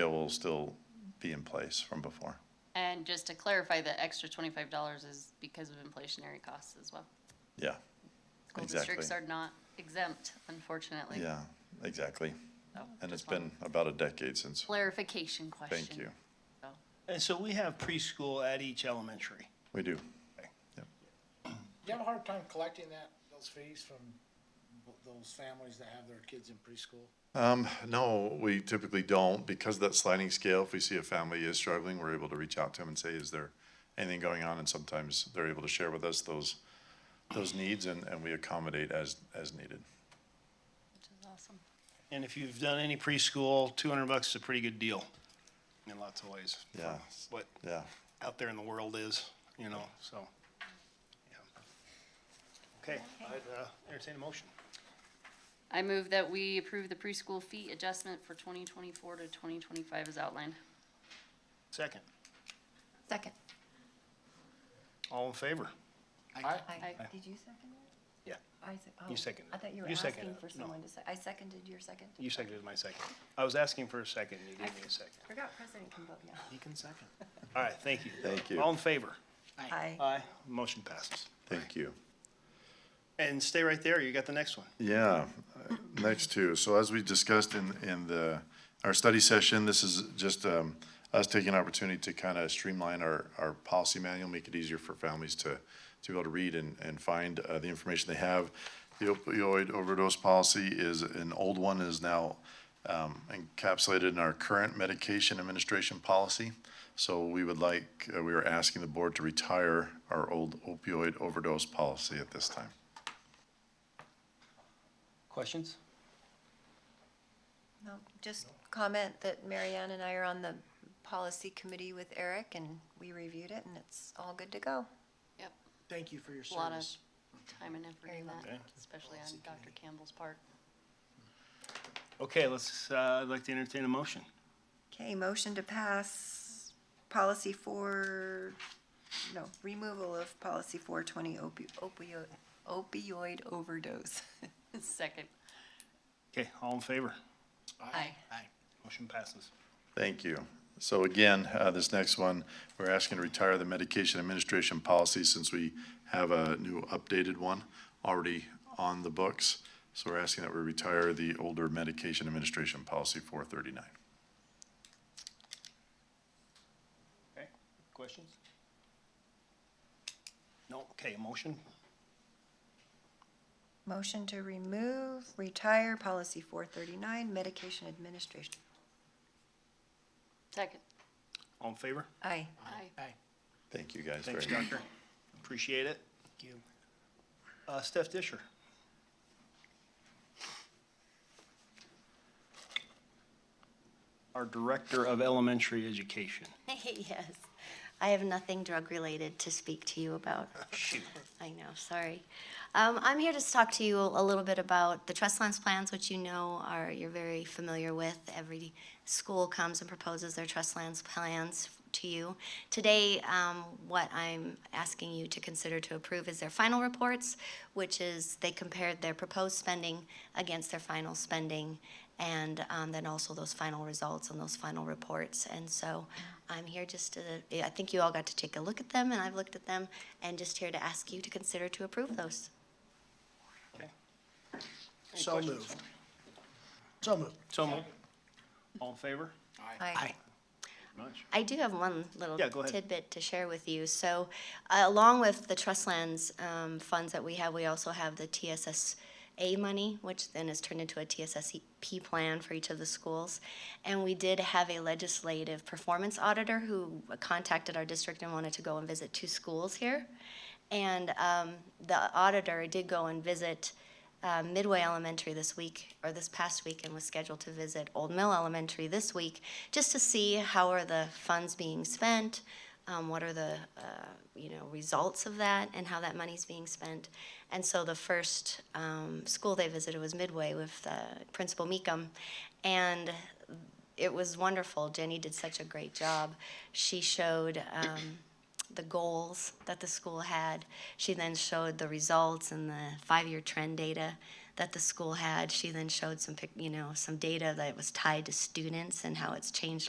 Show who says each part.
Speaker 1: It will still be in place from before.
Speaker 2: And just to clarify, the extra twenty-five dollars is because of inflationary costs as well.
Speaker 1: Yeah,
Speaker 2: School districts are
Speaker 1: Exactly.
Speaker 2: not exempt, unfortunately.
Speaker 1: yeah, exactly.
Speaker 2: So,
Speaker 1: And it's
Speaker 2: just one
Speaker 1: been about a decade since,
Speaker 2: Clarification question.
Speaker 1: thank you.
Speaker 2: So.
Speaker 3: And so we have preschool at each elementary.
Speaker 1: We do.
Speaker 4: Do you have a hard time collecting that, those fees from those families that have their kids in preschool?
Speaker 1: Um, no, we typically don't, because of that sliding scale, if we see a family is struggling, we're able to reach out to them and say, is there anything going on? And sometimes they're able to share with us those, those needs and, and we accommodate as, as needed.
Speaker 2: Which is awesome.
Speaker 3: And if you've done any preschool, two hundred bucks is a pretty good deal in lots of ways. for
Speaker 1: Yeah.
Speaker 3: What
Speaker 1: Yeah,
Speaker 3: out there in the world is, you know, so. yeah. Okay, I'd uh, entertain a motion.
Speaker 2: I move that we approve the preschool fee adjustment for twenty twenty-four to twenty twenty-five as outlined.
Speaker 3: Second,
Speaker 5: Second.
Speaker 3: all in favor?
Speaker 5: I,
Speaker 2: Aye.
Speaker 5: did you second it?
Speaker 3: Yeah.
Speaker 5: I sec-
Speaker 3: You
Speaker 5: oh,
Speaker 3: seconded
Speaker 5: I
Speaker 3: it.
Speaker 5: thought you were
Speaker 3: You seconded
Speaker 5: asking
Speaker 3: it.
Speaker 5: for
Speaker 3: No.
Speaker 5: someone to say, I seconded your second.
Speaker 3: You seconded my second. I was asking for a second, you gave me a second.
Speaker 5: Forgot president can vote yes.
Speaker 3: He can second. All right, thank you.
Speaker 1: Thank you.
Speaker 3: All in favor?
Speaker 5: Aye.
Speaker 3: Aye. Motion passes.
Speaker 1: thank you.
Speaker 3: And stay right there, you got the next one.
Speaker 1: Yeah, uh, next two. So as we discussed in, in the, our study session, this is just um, us taking an opportunity to kind of streamline our, our policy manual, make it easier for families to, to be able to read and, and find uh, the information they have. The opioid overdose policy is an old one, is now um, encapsulated in our current medication administration policy. So we would like, uh, we are asking the board to retire our old opioid overdose policy at this time.
Speaker 6: Questions?
Speaker 5: No, just comment that Marianne and I are on the policy committee with Eric and we reviewed it and it's all good to go.
Speaker 2: Yep,
Speaker 6: Thank you for your
Speaker 2: a lot of
Speaker 6: service.
Speaker 2: time and effort
Speaker 5: Very
Speaker 2: in that,
Speaker 3: welcome.
Speaker 2: especially on Dr. Campbell's part.
Speaker 3: Okay, let's, uh, I'd like to entertain a motion.
Speaker 5: Okay, motion to pass policy for, no, removal of policy four twenty opioid, opioid overdose.
Speaker 2: Second.
Speaker 3: Okay, all in favor?
Speaker 2: Aye.
Speaker 3: Motion passes.
Speaker 1: Thank you. So again, uh, this next one, we're asking to retire the medication administration policy since we have a new updated one already on the books. So we're asking that we retire the older medication administration policy 439.
Speaker 3: Okay, questions? No, okay, motion?
Speaker 5: Motion to remove, retire policy four thirty-nine medication administration.
Speaker 2: Second.
Speaker 3: All in favor?
Speaker 5: Aye.
Speaker 2: Aye.
Speaker 1: Thank you guys very
Speaker 3: Thanks,
Speaker 1: much.
Speaker 3: Doctor. Appreciate it. Thank you. Uh, Steph Disher. Our Director of Elementary Education.
Speaker 7: Yes. I have nothing drug-related to speak to you about. I know, sorry. Um, I'm here to just talk to you a little bit about the trust lands plans, which you know are, you're very familiar with. Every school comes and proposes their trust lands plans to you. Today, um, what I'm asking you to consider to approve is their final reports, which is they compared their proposed spending against their final spending, and um, then also those final results and those final reports. And so I'm here just to, I think you all got to take a look at them, and I've looked at them, and just here to ask you to consider to approve those.
Speaker 6: So moved. So moved.
Speaker 3: So moved. All in favor?
Speaker 5: Aye.
Speaker 3: Much.
Speaker 7: I do have one little
Speaker 3: Yeah, go ahead.
Speaker 7: tidbit to share with you. So, uh, along with the trust lands um, funds that we have, we also have the TSSA money, which then is turned into a TSSP E plan for each of the schools. And we did have a legislative performance auditor who contacted our district and wanted to go and visit two schools here. And um, the auditor did go and visit uh, Midway Elementary this week, or this past week, and was scheduled to visit Old Mill Elementary this week, just to see how are the funds being spent, um, what are the, uh, you know, results of that, and how that money's being spent. And so the first um, school they visited was Midway with uh, Principal Meekum, and it was wonderful. Jenny did such a great job. She showed um, the goals that the school had. She then showed the results and the five-year trend data that the school had. She then showed some, pic- you know, some data that was tied to students and how it's changed a